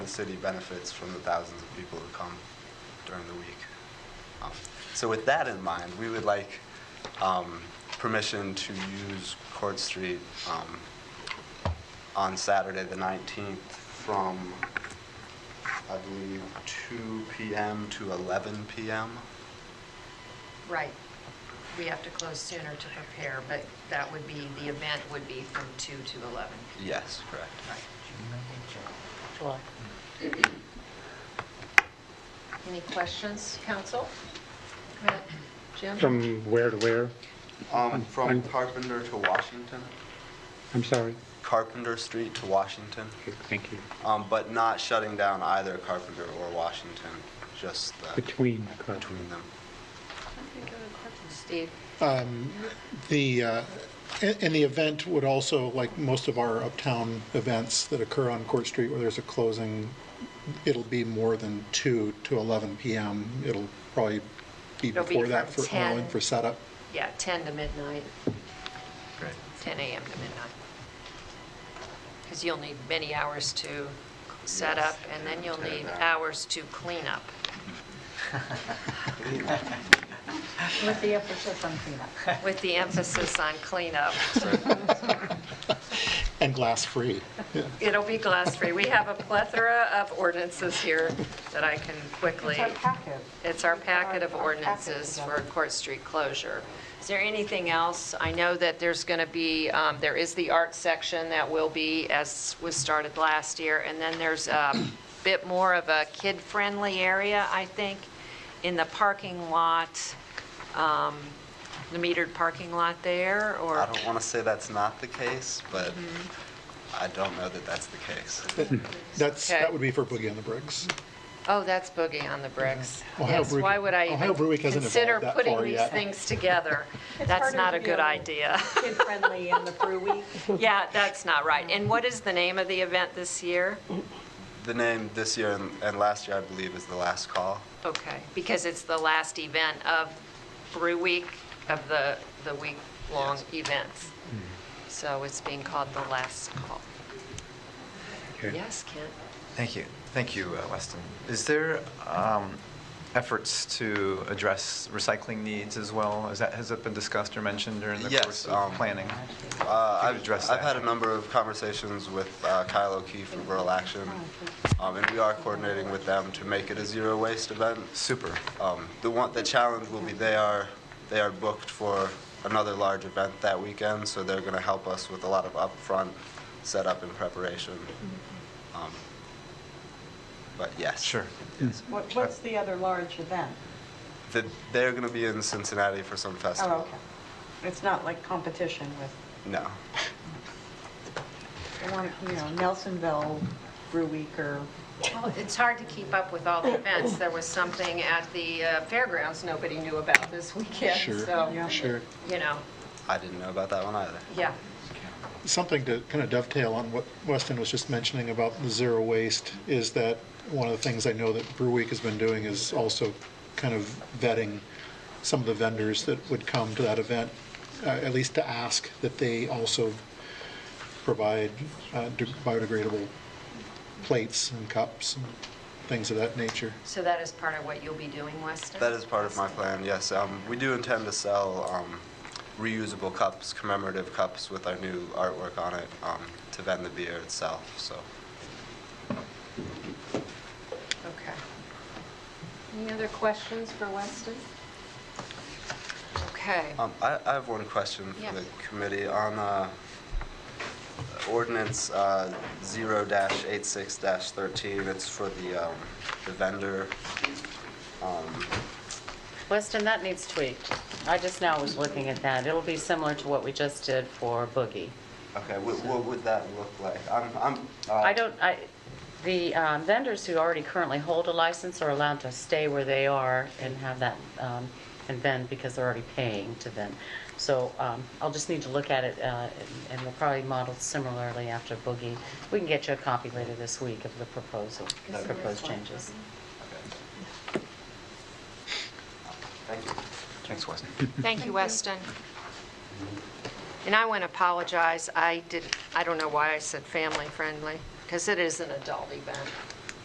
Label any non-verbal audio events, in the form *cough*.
The city benefits from the thousands of people who come during the week. Um, So with that in mind, we would like um, permission to use Court Street um, on Saturday, the 19th, from, I believe, 2 PM to 11 PM. Right. We have to close sooner to prepare, but that would be, the event would be from 2 to 11. Yes, correct. Right. Any questions, council? Jim? From where to where? Um, From I'm- Carpenter to Washington? I'm sorry. Carpenter Street to Washington? Okay, Thank you. Um, but not shutting down either Carpenter or Washington, just the, Between. uh, between them. Steve? um, The, uh, and and the event would also, like most of our uptown events that occur on Court Street where there's a closing, it'll be more than 2 to 11 PM. It'll probably be It'll be before that from for allowing 10. for setup. Yeah, 10 to midnight, Great. 10 a.m. to midnight. Because you'll need many hours to set up, and then you'll need hours to clean up. With the emphasis on cleanup. With the emphasis on cleanup. And *laughs* glass-free. Yeah. It'll be glass-free. We have a plethora of ordinances here that I can quickly. It's our packet. It's our packet of Our- our packet ordinances for together. Court Street closure. Is there anything else? I know that there's going to be, um, there is the art section that will be, as was started last year, and then there's a bit more of a kid-friendly area, I think, in the parking lot, um, the metered parking lot there, or? I don't want to say that's not the case, but Mm-hmm. I don't know that that's the case. That's, Okay. that would be for Boogie on the Bricks. Oh, that's Boogie on the Bricks. Ohio Yes, Brewing- why would I Ohio even Brewing hasn't consider evolved that putting far these yet. things together? It's That's harder not to a good be on- idea. kid-friendly and the brew week. Yeah, that's not right. And what is the name of the event this year? The name this year and, and last year, I believe, is the last call. Okay, because it's the last event of Brew Week, of the, the week-long events. So it's being called the last call. okay. Yes, Kent? Thank you. Thank you, uh, Weston. Is there um, efforts to address recycling needs as well? Is that, has that been discussed or mentioned during the Yes, course um, of planning? Uh, Could I've, address I've that. had a number of conversations with uh, Kyle O'Keefe and Rural Action, Oh, um, and we are coordinating with them to make it a zero waste event. Super. Um, The one, the challenge will be they are, they are booked for another large event that weekend, so they're going to help us with a lot of upfront setup and preparation. Mm-hmm. Um, But yes. Sure. Yes. What- What's the other large event? The- They're going to be in Cincinnati for some Oh, festival. okay. It's not like competition with, No. I want, you know, Nelsonville Brew Week or, Well, it's hard to keep up with all the events. There was something at the uh, fairgrounds nobody knew about this weekend, Sure, so, yeah. Sure. you know, I didn't know about that one either. yeah. Something to kind of dovetail on what Weston was just mentioning about the zero waste is that one of the things I know that Brew Week has been doing is also kind of vetting some of the vendors that would come to that event, uh, at least to ask that they also provide uh, de- biodegradable plates and cups and things of that nature. So that is part of what you'll be doing, Weston? That is part of my plan, yes. Um, We do intend to sell um, reusable cups, commemorative cups with our new artwork on it um, to vend the beer itself, so. Okay. Any other questions for Weston? Okay. Um, I I have one question for Yes. the committee on uh, ordinance uh, 0-86-13. It's for the um, the vendor. um, Weston, that needs tweaked. I just now was looking at that. It'll be similar to what we just did for Boogie. Okay, wh- what would that look like? I'm- I'm, uh, I don't, I, the um, vendors who already currently hold a license are allowed to stay where they are and have that, um, and vend because they're already paying to vend. So um, I'll just need to look at it, uh, and we'll probably model similarly after Boogie. We can get you a copy later this week of the proposal, the proposed changes. Thank you. Thanks, Weston. Thank you, Weston. And I want to apologize, I did, I don't know why I said family-friendly, because it is an adult event.